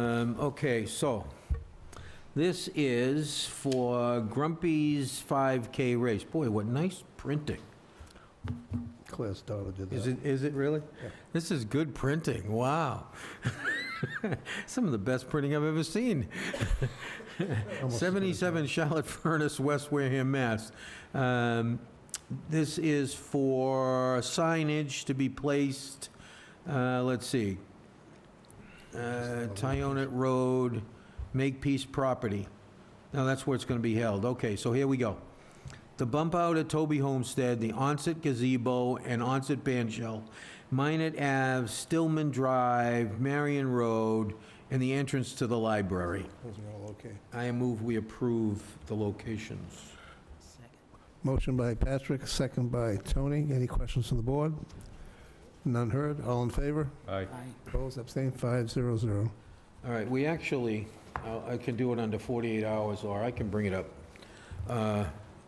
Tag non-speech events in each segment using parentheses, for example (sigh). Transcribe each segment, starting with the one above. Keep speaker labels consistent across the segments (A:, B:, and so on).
A: Um, okay, so, this is for Grumpy's 5K race. Boy, what nice printing.
B: Claire's daughter did
A: Is
B: that.
A: it, is it really?
B: Yeah.
A: This is good printing, wow. (laughs) Some of the best printing I've ever seen.
B: Almost as good as
A: 77 Charlotte Furnace, West Wareham, Mass. Um, This is for signage to be placed, uh, let's see, uh, Tyonet Road, Makepeace Property. Now, that's where it's going to be held. Okay, so here we go. The bump out at Toby Homestead, the onset gazebo and onset band shell, Minnet Ave, Stillman Drive, Marion Road, and the entrance to the library.
B: Those are all okay.
A: I move we approve the locations.
B: Motion by Patrick, second by Tony. Any questions from the board? None heard, all in favor?
C: Aye.
B: Opposed, abstained, five zero zero.
A: All right, we actually, I I can do it under 48 hours, or I can bring it up uh,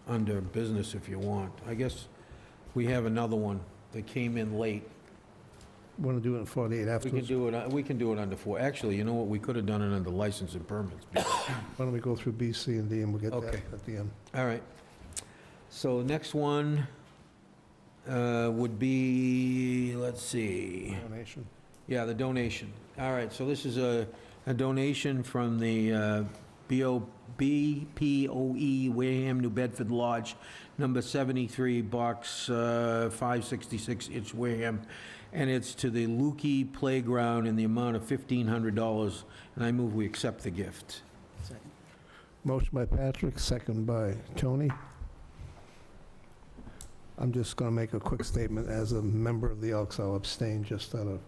A: under business if you want. I guess we have another one that came in late.
B: Want to do it in 48
A: We can
B: afterwards?
A: do it, we can do it under four, actually, you know what, we could have done it under license and permits.
B: Why don't we go through B, C, and D, and we'll get that
A: Okay.
B: at the end.
A: All right. So next one uh, would be, let's see.
B: Donation.
A: Yeah, the donation. All right, so this is a, a donation from the uh, BO, BPOE E, Wareham, New Bedford Lodge, number 73, box uh, 566, it's Wareham, and it's to the Lukey Playground in the amount of $1,500, and I move we accept the gift.
B: Motion by Patrick, second by Tony. I'm just going to make a quick statement. As a member of the Elks, I'll abstain just out of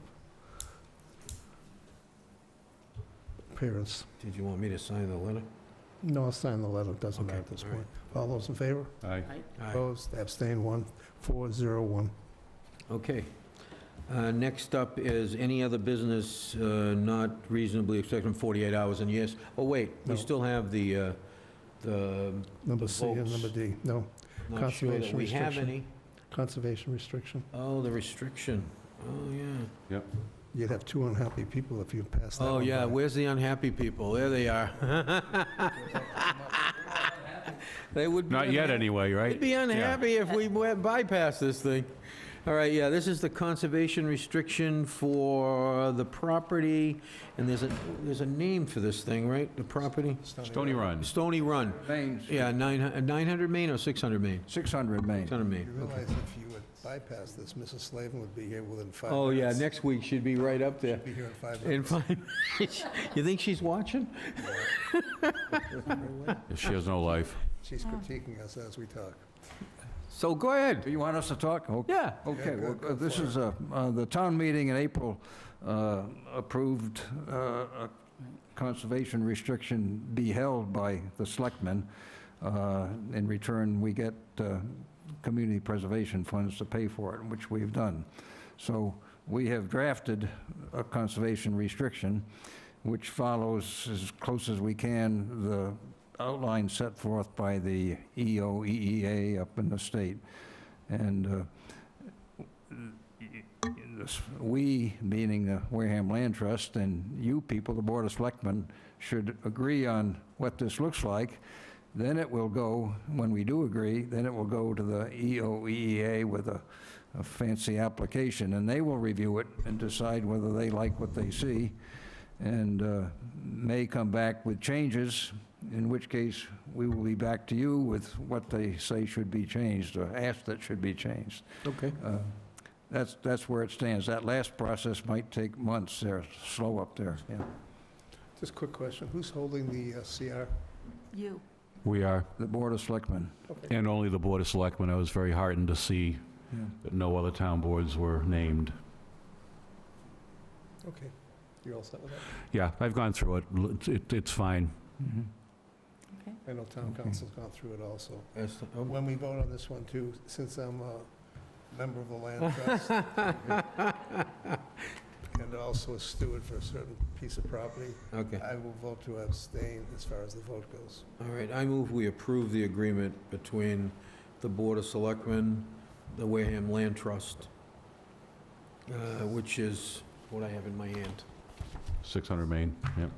B: appearance.
A: Did you want me to sign the letter?
B: No, I'll sign the letter, it doesn't
A: Okay,
B: matter at this
A: all right.
B: point. All those in favor?
C: Aye.
A: All right.
B: Opposed, abstained, one, four, zero, one.
A: Okay. Uh, Next up is any other business uh, not reasonably expected in 48 hours, and yes, oh, wait, we
B: No.
A: still have the, uh, the,
B: Number
A: The
B: C and
A: votes.
B: number D, no.
A: not sure that
B: Conservation
A: we have
B: restriction.
A: any.
B: Conservation restriction.
A: Oh, the restriction, oh, yeah.
B: You'd have two unhappy people if you passed that
A: Oh,
B: one
A: yeah,
B: by.
A: where's the unhappy people? There they are. (laughs) They would be.
C: Not yet,
A: unhappy.
C: anyway, right?
A: They'd be unhappy if we went bypass this thing. All right, yeah, this is the conservation restriction for the property, and there's a, there's a name for this thing, right? The property?
C: Stony Run.
A: Stony Run.
D: Main's
A: Yeah, nine hu- 900 Main or 600 Main?
D: 600 Main.
A: 600
B: You
A: Main.
B: realize if you would bypass this, Mrs. Slavin would be here within five
A: Oh, yeah,
B: minutes.
A: next week she'd be right up there.
B: Be here in five
A: In (laughs)
B: minutes.
A: five, you think she's watching?
C: She has no life.
B: (laughs) She's critiquing us as we talk.
A: So go ahead.
D: Do you want us to talk? Okay.
A: Yeah.
D: Okay,
B: Yeah,
D: well,
B: go-
D: uh,
B: go
D: this
B: for it.
D: is, uh, uh, the town meeting in April uh, approved uh, a conservation restriction be held by the selectmen. Uh, In return, we get uh, community preservation funds to pay for it, which we've done. So we have drafted a conservation restriction, which follows as close as we can the outline set forth by the E EOEEA up in the state. And uh, this- we, meaning the Wareham Land Trust, and you people, the Board of Selectmen, should agree on what this looks like. Then it will go, when we do agree, then it will go to the EOEEA with a a fancy application, and they will review it and decide whether they like what they see, and uh, may come back with changes, in which case, we will be back to you with what they say should be changed, or ask that should be changed.
A: Okay.
D: Uh, That's, that's where it stands. That last process might take months. They're slow up there, yeah.
B: Just a quick question, who's holding the uh, CR?
E: You.
C: We are.
D: The Board of Selectmen.
B: Okay.
C: And only the Board of Selectmen. I was very heartened to see
D: yeah.
C: that no other town boards were named.
B: Okay, you're all set with that?
C: Yeah, I've gone through it. L- it's- it. It's fine.
D: Mhm.
B: I know town
D: Okay.
B: council's gone through it also.
A: That's the- oh.
B: When we vote on this one too, since I'm a member of
A: (laughs)
B: the land trust and also a steward for a certain piece of property,
A: Okay,
B: I will vote to abstain as far as the vote goes.
A: all right, I move we approve the agreement between the Board of Selectmen, the Wareham Uh, Land Trust, uh, which is what I have in my hand.
C: 600 Main, yep.